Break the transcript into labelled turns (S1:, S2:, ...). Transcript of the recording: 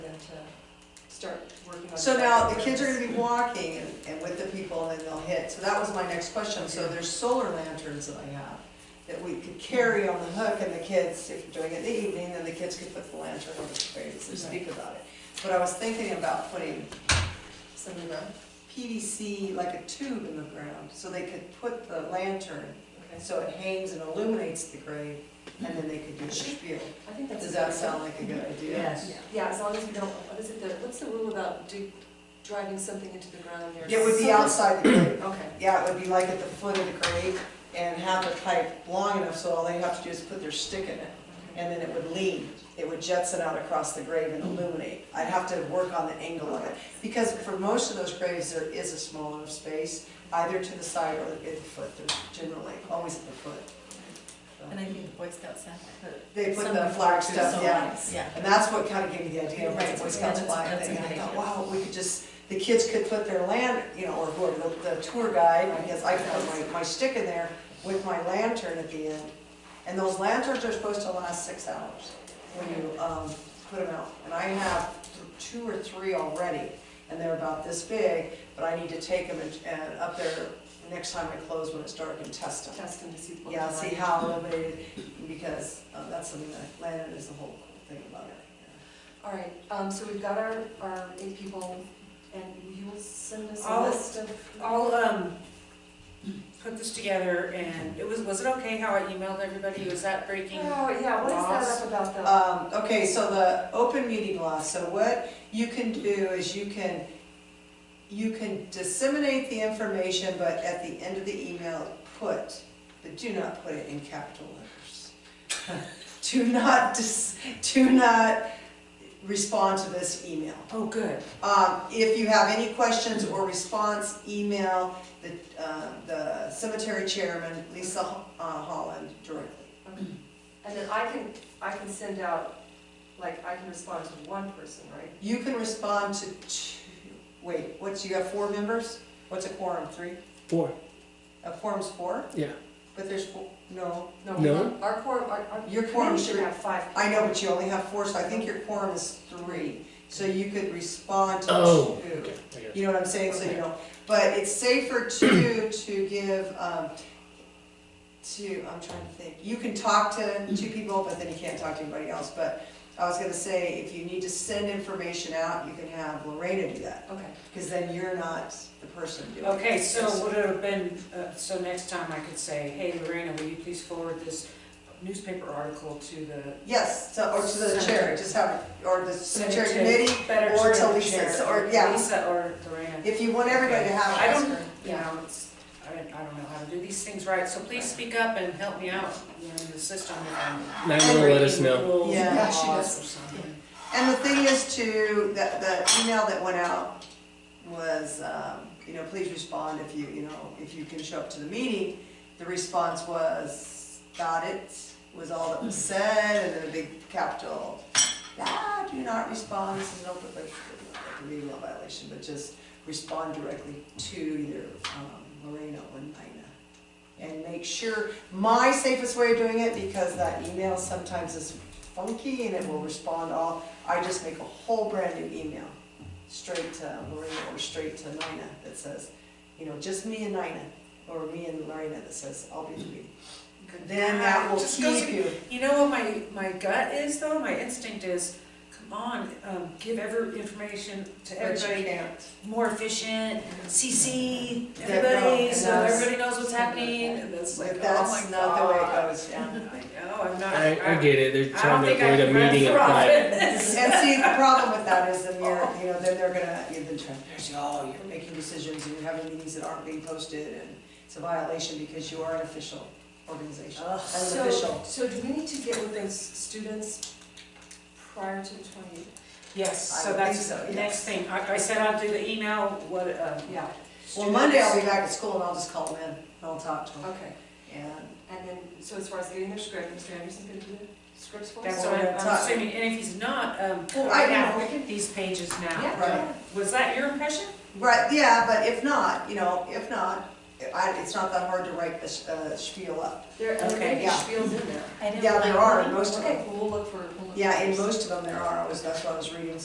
S1: start working on.
S2: So now the kids are gonna be walking and- and with the people and then they'll hit. So that was my next question. So there's solar lanterns that I have that we could carry on the hook and the kids, if you're doing it in the evening, then the kids could put the lantern over the trees and speak about it. But I was thinking about putting
S1: Some of them,
S2: PVC, like a tube in the ground, so they could put the lantern
S1: okay.
S2: so it hangs and illuminates the grave and then they could do a spiel.
S1: I think that's.
S2: Does that sound like a good idea?
S3: Yes.
S1: Yeah, as long as we don't, what is it, the- what's the rule about do, driving something into the ground near?
S2: It would be
S1: someone-
S2: outside the grave.
S1: Okay,
S2: Yeah, it would be like at the foot of the grave and have the pipe long enough so all they have to do is put their stick in it.
S1: okay.
S2: And then it would lean, it would jetson out across the grave and illuminate. I'd have to work on the angle of it. Because for most of those graves, there is a small enough space, either to the side or at the foot, they're generally, always at the foot.
S4: And I think the Boy Scouts have the.
S2: They put
S4: some
S2: the
S4: people
S2: flag
S4: do
S2: stuff,
S4: some
S2: yeah.
S4: lights, Yeah.
S2: And that's what kind of gave me the idea of the
S4: Right,
S2: Boy Scouts
S4: that's-
S2: flag
S4: that's
S2: thing.
S4: a
S2: And I
S4: good
S2: thought,
S4: idea.
S2: wow, we could just, the kids could put their land, you know, or whoever, the, the tour guide, I guess, I could put my, my stick in there with my lantern at the end. And those lanterns are supposed to last six hours when you, um, put them out. And I have th- two or three already, and they're about this big, but I need to take them and, and up there next time I close when it's dark and test them.
S1: Test them to see. what
S2: Yeah,
S1: they're
S2: see
S1: like.
S2: how illuminated, because uh, that's something that Landon is the whole thing about it.
S1: All right, um, so we've got our, our eight people, and you will send us a
S3: I'll-
S1: list of.
S3: I'll, um, put this together and it was, was it okay how I emailed everybody? Was that breaking?
S1: Oh, yeah, what is that
S3: Laws.
S1: up about the?
S2: Um, Okay, so the open meeting law, so what you can do is you can, you can disseminate the information, but at the end of the email, put, but do not put it in capital letters. Do not, dis- do not respond to this email.
S3: Oh, good.
S2: Um, if you have any questions or response, email the, uh, the cemetery chairman, Lisa Ho- uh, Holland, directly.
S1: And then I can, I can send out, like, I can respond to one person, right?
S2: You can respond to two, wait, what's, you have four members? What's a quorum, three?
S5: Four.
S2: A quorum's four?
S5: Yeah.
S2: But there's four, no,
S5: No.
S1: Our quorum, our, our.
S2: Your quorum
S1: committee should
S2: should-
S1: have five.
S2: I know, but you only have four, so I think your quorum is three. So you could respond to
S5: Oh.
S2: two.
S5: Okay, I got it.
S2: You know what I'm saying, so you don't, but it's safer to, to give, um, to, I'm trying to think, you can talk to two people, but then you can't talk to anybody else, but I was gonna say, if you need to send information out, you can have Lorena do that,
S1: Okay,
S2: because then you're not the person doing it.
S3: Okay, so would it have been, uh, so next time I could say, hey Lorena, will you please forward this newspaper article to the
S2: Yes, to, or to the chair, just have, or the cemetery committee,
S3: better
S2: or to
S3: the
S2: Lisa,
S3: chair,
S2: so- or- yeah.
S3: Lisa or Lorena.
S2: if you want everybody to have.
S3: I
S2: it,
S3: don't-
S2: that's great.
S3: You know, it's, I don't, I don't know how to do these things right, so please speak up and help me out, you know, in the system. if I'm
S5: Nine will let us
S3: breaking
S5: know.
S3: rules and
S2: Yeah, she
S3: laws
S2: does.
S3: or something.
S2: And the thing is too, that, the email that went out was, um, you know, please respond if you, you know, if you can show up to the meeting. The response was, got it, was all that was said, and then a big capital, ah, do not respond, this is an open, like, like a meeting law violation, but just respond directly to either, um, Lorena or Nina. And make sure, my safest way of doing it, because that email sometimes is funky and it will respond all, I just make a whole brand new email, straight to Lorena or straight to Nina that says, you know, just me and Nina, or me and Lorena that says, I'll be the meeting. Then that will
S3: Just goes-
S2: keep you.
S3: You know what my, my gut is though, my instinct is, come on, um, give every information to
S2: But you
S3: everybody,
S2: can't.
S3: more efficient, CC,
S2: That- no,
S3: everybody,
S2: and
S3: so
S2: that's-
S3: everybody knows what's happening, and that's like, oh
S2: But
S3: my
S2: that's not the way it
S3: God.
S2: goes, yeah.
S3: I know, I'm not.
S5: I, I get it, they're
S3: I don't
S5: trying to
S3: think I
S5: avoid a
S3: can run
S5: meeting
S3: for
S5: at night.
S3: office.
S2: And see, the problem with that is then you're, you know, then they're gonna, you've been trying, there's, oh, you're making decisions and you're having meetings that aren't being posted and it's a violation because you are an official
S3: Oh,
S2: organization, an
S1: so,
S2: official.
S1: so do we need to get with those students prior to the twenty?
S3: Yes,
S2: I
S3: so
S2: would
S3: that's
S2: think so,
S3: the
S2: yes.
S3: next thing, I, I said I'll do the email, what, um.
S1: Yeah,
S2: Well, Monday I'll be back at school and I'll just call them in and I'll talk to them.
S1: okay,
S2: And
S1: and then, so as far as getting their script, Mr. Anderson's gonna do the scripts for us?
S3: That's what I'm- I'm
S2: Time.
S3: assuming, and if he's not, um,
S2: Well,
S3: right
S2: I
S3: now,
S2: know.
S3: these pages now.
S1: Yeah,
S2: Right.
S3: Was that your impression?
S2: Right, yeah, but if not, you know, if not, I, it's not that hard to write a s- a spiel up.
S1: there, and there may be
S2: Okay.
S1: spiels in there.
S4: I didn't
S2: Yeah,
S4: like
S2: there are
S4: one.
S2: in most of
S1: Okay,
S2: them.
S1: well, we'll look for, we'll look.
S2: Yeah,
S1: for
S2: in
S1: those.
S2: most of them there are, I was, that's what I was reading